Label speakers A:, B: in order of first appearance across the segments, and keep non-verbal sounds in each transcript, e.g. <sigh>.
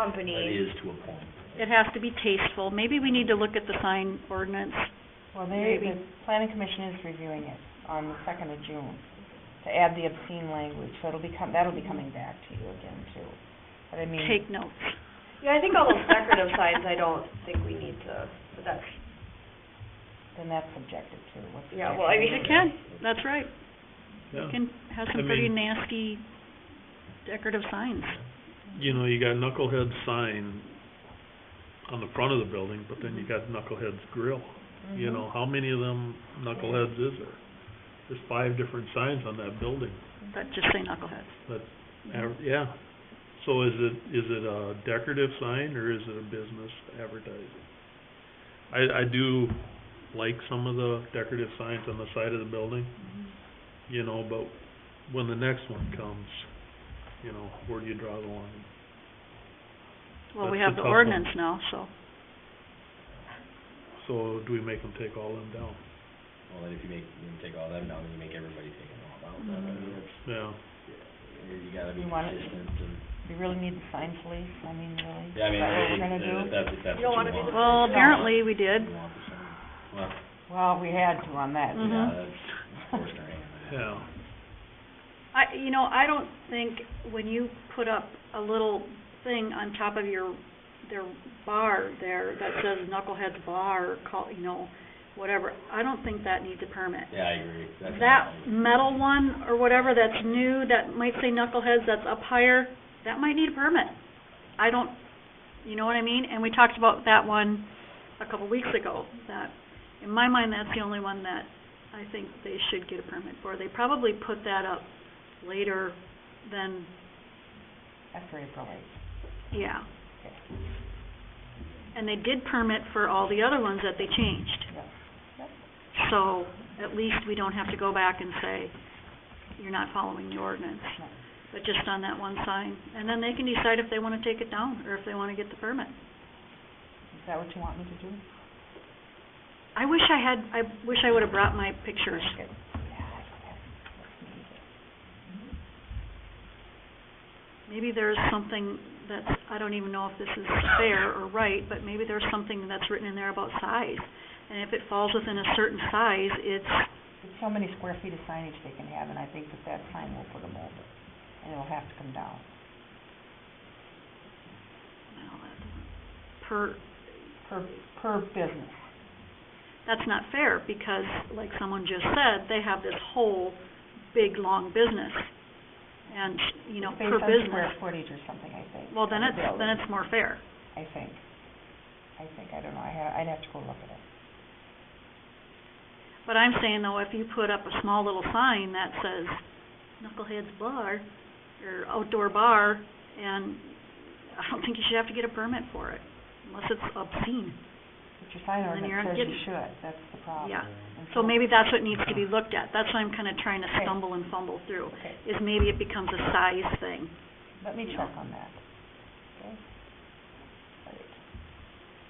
A: That
B: company.
A: is to a point.
C: It has to be tasteful. Maybe we need to look at the sign ordinance.
D: Well, they,
C: Maybe.
D: the planning commission is reviewing it on the second of June to add the obscene language, so it'll be com- that'll be coming back to you again too. But I mean,
C: Take notes.
B: Yeah, I think all those decorative signs, I don't think we need to, but that's,
D: then that's subjective too, what's the
B: Yeah, well, I mean,
D: actual-
C: It can, that's right.
E: Yeah,
C: It can have
E: I
C: some pretty
E: mean-
C: nasty decorative signs.
E: you know, you got Knucklehead sign on the front of the building, but then you got Knucklehead's Grill. You
D: Mhm.
E: know, how many of them Knuckleheads is there? There's five different signs on that building,
C: But just say knuckleheads.
E: but, av- yeah. So is it, is it a decorative sign or is it a business advertising? I, I do like some of the decorative signs on the side of the building, you know, but when the next one comes, you know, where do you draw the line?
C: Well, we
E: That's a
C: have the
E: tough one.
C: ordinance now, so.
E: So do we make them take all them down?
A: Well, then if you make, you take all them down, then you make everybody take them all down. I mean, it's-
E: Yeah,
A: You gotta be
D: Mm-hmm. You want it-
A: consistent and,
D: We really need the sign police, I mean, really?
A: yeah, I mean, uh,
D: Is that what we're
A: if-
D: gonna
A: if
D: do?
A: that's, if that's
B: You don't
A: what
B: wanna be
A: you want.
B: the
C: Well,
B: Yeah.
C: apparently we did.
A: You want the sign. Well,
D: Well, we had to on that,
C: Mhm.
A: yeah, that's forcing our hand.
E: yeah.
C: I, you know, I don't think when you put up a little thing on top of your, their bar there that says Knuckleheads Bar, or call, you know, whatever, I don't think that needs a permit.
A: Yeah, I agree. That's
C: That
A: not- Uh,
C: metal one or whatever that's new, that might say Knuckleheads, that's up higher, that might need a permit. I don't, you know what I mean? And we talked about that one a couple weeks ago, that, in my mind, that's the only one that I think they should get a permit for. They probably put that up later than,
B: Mm-hmm.
D: after April eighth.
C: yeah. And they did permit for all the other ones that they changed. So at least we don't have to go back and say, you're not following the ordinance.
D: No.
C: But just on that one sign, and then they can decide if they wanna take it down or if they wanna get the permit.
D: Is that what you want me to do?
C: I wish I had, I wish I would've brought my pictures.
D: Okay.
C: Maybe there's something that's, I don't even know if this is fair or right, but maybe there's something that's written in there about size. And if it falls within a certain size, it's,
D: It's so many square feet of signage they can have, and I think that that sign will put them over, and it'll have to come down.
C: well, that doesn't, per,
D: per, per business.
C: that's not fair, because like someone just said, they have this whole big, long business. And, you know, per
D: Based on square
C: business,
D: footage or something, I think.
C: well, then
D: of
C: it's,
D: the
C: then
D: building,
C: it's more fair.
D: I think, I think, I don't know, I ha- I'd have to go look at it.
C: But I'm saying though, if you put up a small little sign that says Knucklehead's Bar, or Outdoor Bar, and I don't think you should have to get a permit for it, unless it's obscene.
D: But your sign
C: Then you're
D: ordinance says you
C: getting-
D: should, that's the problem.
C: Yeah.
D: And
C: So maybe that's what needs to be looked at, that's what I'm kinda trying to
D: Okay.
C: stumble and fumble through,
D: Okay,
C: is maybe it becomes a size thing.
D: let me
C: Yeah.
D: check on that, okay? All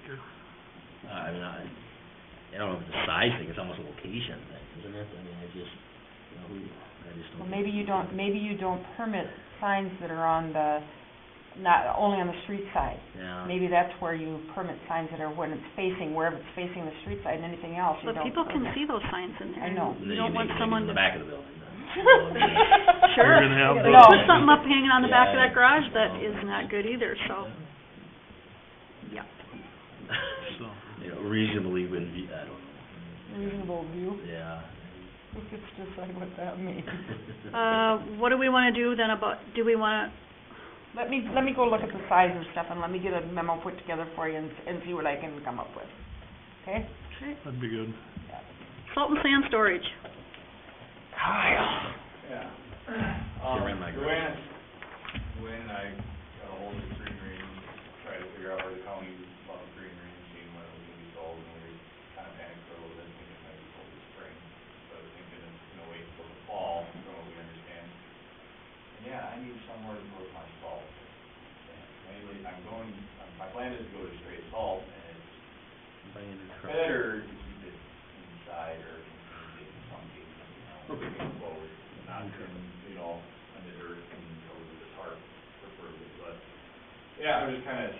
D: right.
A: Uh, I mean, I, I don't know if it's a size thing, it's almost a location thing, isn't it? I mean, I just, you know, who, I just don't.
D: Well,
A: think
D: maybe you
A: it's-
D: don't, maybe you don't permit signs that are on the, not, only on the street side.
A: Yeah.
D: Maybe that's where you permit signs that are when it's facing, wherever it's facing the street side and anything else, you
C: But
D: don't
C: people can
D: permit.
C: see those signs in there.
D: I know.
A: And
C: You
A: then
C: don't want
A: make it
C: someone
A: In
C: to
A: the back of the building.
D: <laughs>
C: Sure.
E: You're gonna have
D: No.
E: those-
C: put something up hanging on the back of
A: Yeah.
C: that garage that is not good either, so, yeah.
A: <laughs>
E: so,
A: You know, reasonably would be, I don't know.
D: Reasonable view,
A: Yeah. <laughs>
D: we could decide what that means.
C: Uh, what do we wanna do then about, do we wanna,
D: Let me, let me go look at the size and stuff, and let me get a memo put together for you and, and see what I can come up with, okay?
E: that'd be good.
C: salt and sand storage?
F: Yeah.
A: Get
F: Um,
A: rid of my
F: When,
A: garage.
F: when I got ahold of Green Range, tried to figure out where the county bought Green Range, and when it was gonna be sold, and we contacted her, then thinking it might be sold this spring. So I was thinking it's gonna wait till the fall, from what we understand. And yeah, I need somewhere to put my salt. And Mainly, I'm going, my plan is to go to straight salt, and it's better to keep it inside or get something, you know, closed, not turn, you know, under dirt and over the tarp preferably, but Yeah, I'm just kinda